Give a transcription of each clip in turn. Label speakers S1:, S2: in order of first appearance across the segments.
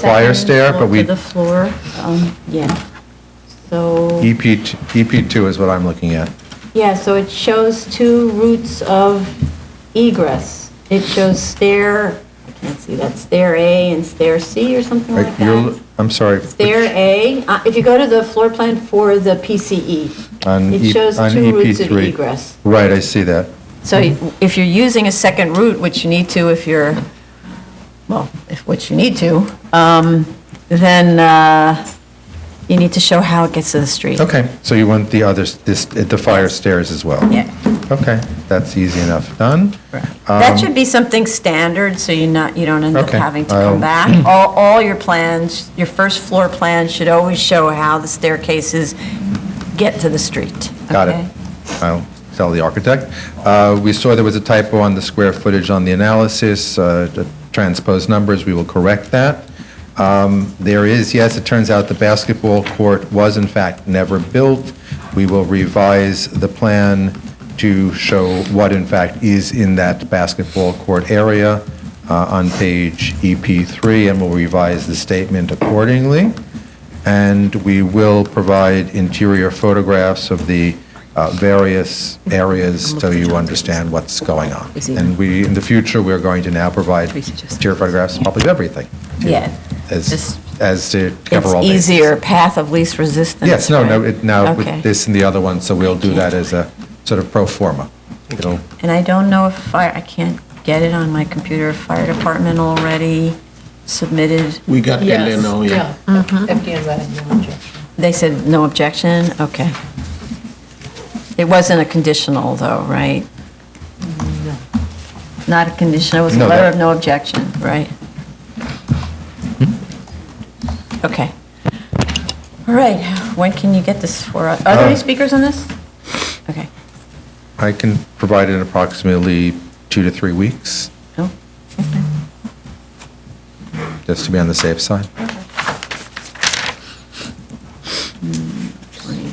S1: Flyer stair, but we,
S2: To the floor, um, yeah. So,
S1: EP, EP2 E is what I'm looking at.
S2: yeah, so it shows two routes of egress. It shows stair, I can't see that, stair A and stair C or something
S1: Right,
S2: like
S1: you're-
S2: that.
S1: I'm sorry. which-
S2: Stair A, uh, if you go to the floor plan for the PCE,
S1: On
S2: it
S1: E-
S2: shows
S1: on
S2: two routes of
S1: EP3.
S2: egress.
S1: Right, I see that.
S2: So if you're using a second route, which you need to if you're, well, if, which you need to, um, then, uh, you need to show how it gets to the street.
S1: Okay, so you want the others, this, the fire stairs as well?
S2: Yeah.
S1: Okay, that's easy enough. Done?
S2: That should be something standard, so you're not, you don't end up
S1: Um, Okay,
S2: having to
S1: I'll-
S2: come back. All, all your plans, your first floor plan should always show how the staircases get to the street.
S1: Got
S2: okay?
S1: it. I'll tell the architect. Uh, We saw there was a typo on the square footage on the analysis, uh, the transposed numbers, we will correct that. Um, There is, yes, it turns out the basketball court was in fact never built. We will revise the plan to show what in fact is in that basketball court area uh, on page EP3, and we'll revise the statement accordingly and we will provide interior photographs of the uh, various areas so you understand what's going on. And we, in the future, we're going to now provide interior photographs, probably of everything,
S2: Yeah. Just-
S1: as, as to cover
S2: It's
S1: all bases.
S2: easier path of least resistance.
S1: Yes, no, no,
S2: right?
S1: it- now
S2: Okay.
S1: with this and the other one, so we'll do that as a sort of pro forma. It'll-
S2: And I don't know if fire, I can't get it on my computer, fire department already submitted,
S3: We got that in, oh, yeah.
S4: FDN's had no objection.
S2: they said no objection, okay. It wasn't a conditional though, right? Not a conditional, it was a
S1: No,
S2: letter
S1: that-
S2: of no objection, right?
S1: Hmm?
S2: Okay. All right, when can you get this for, us? are there any
S1: Uh,
S2: speakers on this? Okay,
S1: I can provide it in approximately two to three weeks,
S2: no?
S1: just to be on the safe side.
S2: 20.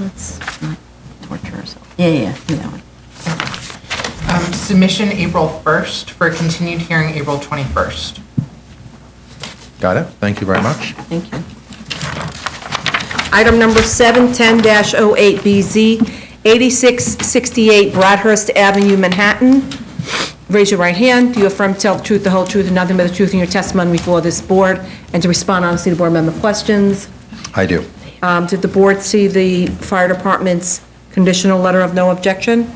S2: Let's not torture ourselves. Yeah, yeah, yeah, that one.
S4: Um, Submission April 1st for continued hearing April 21st.
S1: Got it? Thank you very much.
S2: Thank you.
S5: Item number 710-08BZ, 8668 Bradhurst Avenue, Manhattan. Raise your right hand. Do you affirm to tell the truth, the whole truth, and nothing but the truth in your testimony before this board, and to respond honestly to board member questions?
S1: I do.
S5: Um, Did the board see the fire department's conditional letter of no objection?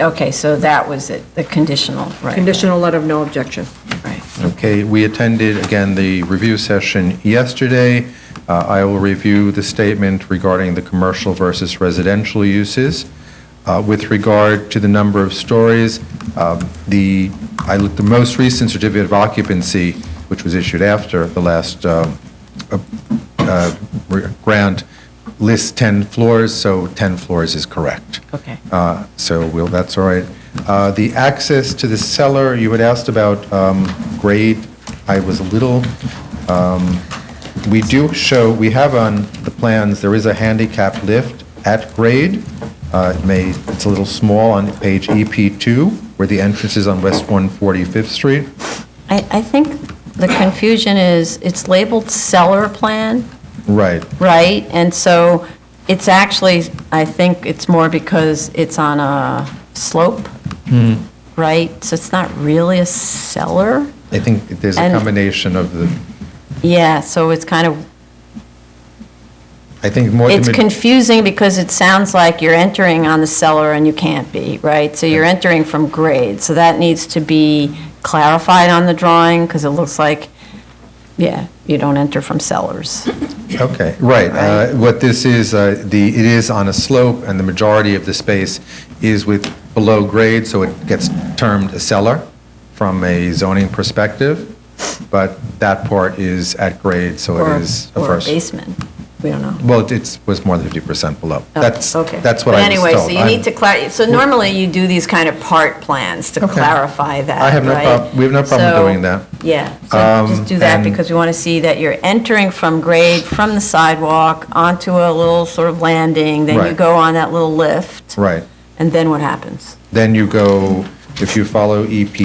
S2: Okay, so that was it, the conditional, right?
S5: Conditional letter of no objection.
S2: Right.
S1: Okay, we attended, again, the review session yesterday. Uh, I will review the statement regarding the commercial versus residential uses. Uh, With regard to the number of stories, um, the, I looked, the most recent certificate of occupancy, which was issued after the last um, uh, grant, lists 10 floors, so 10 floors is correct.
S2: Okay.
S1: Uh, So we'll, that's all right. Uh, The access to the cellar, you had asked about um, grade. I was a little, um, we do show, we have on the plans, there is a handicap lift at grade. Uh, It may, it's a little small on page EP2, where the entrance is on West 145th Street.
S2: I, I think the confusion is, it's labeled seller plan,
S1: Right.
S2: right? And so it's actually, I think it's more because it's on a slope, right? So it's not really a cellar?
S1: I think there's a
S2: And-
S1: combination of the,
S2: Yeah, so it's kind of
S1: I think more. the
S2: It's
S1: mid-
S2: confusing because it sounds like you're entering on the cellar and you can't be, right? So you're entering from grade, so that needs to be clarified on the drawing because it looks like, yeah, you don't enter from cellars.
S1: Okay, right.
S2: Right.
S1: Uh, What this is, uh, the, it is on a slope, and the majority of the space is with, below grade, so it gets termed a cellar from a zoning perspective, but that part is at grade, so
S2: or-
S1: it is a
S2: Or a
S1: first.
S2: basement, we don't know.
S1: Well, it's, was more than 50% below.
S2: Oh,
S1: That's,
S2: okay.
S1: that's what
S2: But
S1: I was told.
S2: Anyway, so you
S1: I'm-
S2: need to clar, so normally you do these kind of part plans to
S1: Okay.
S2: clarify that,
S1: I have no
S2: right?
S1: prob- we have no problem
S2: So-
S1: doing that. Um,
S2: Yeah, so just do that
S1: and-
S2: because we want to see that you're entering from grade, from the sidewalk, onto a little sort of landing, then you
S1: Right.
S2: go on that little lift.
S1: Right.
S2: And then what happens?
S1: Then you go, if you follow E EP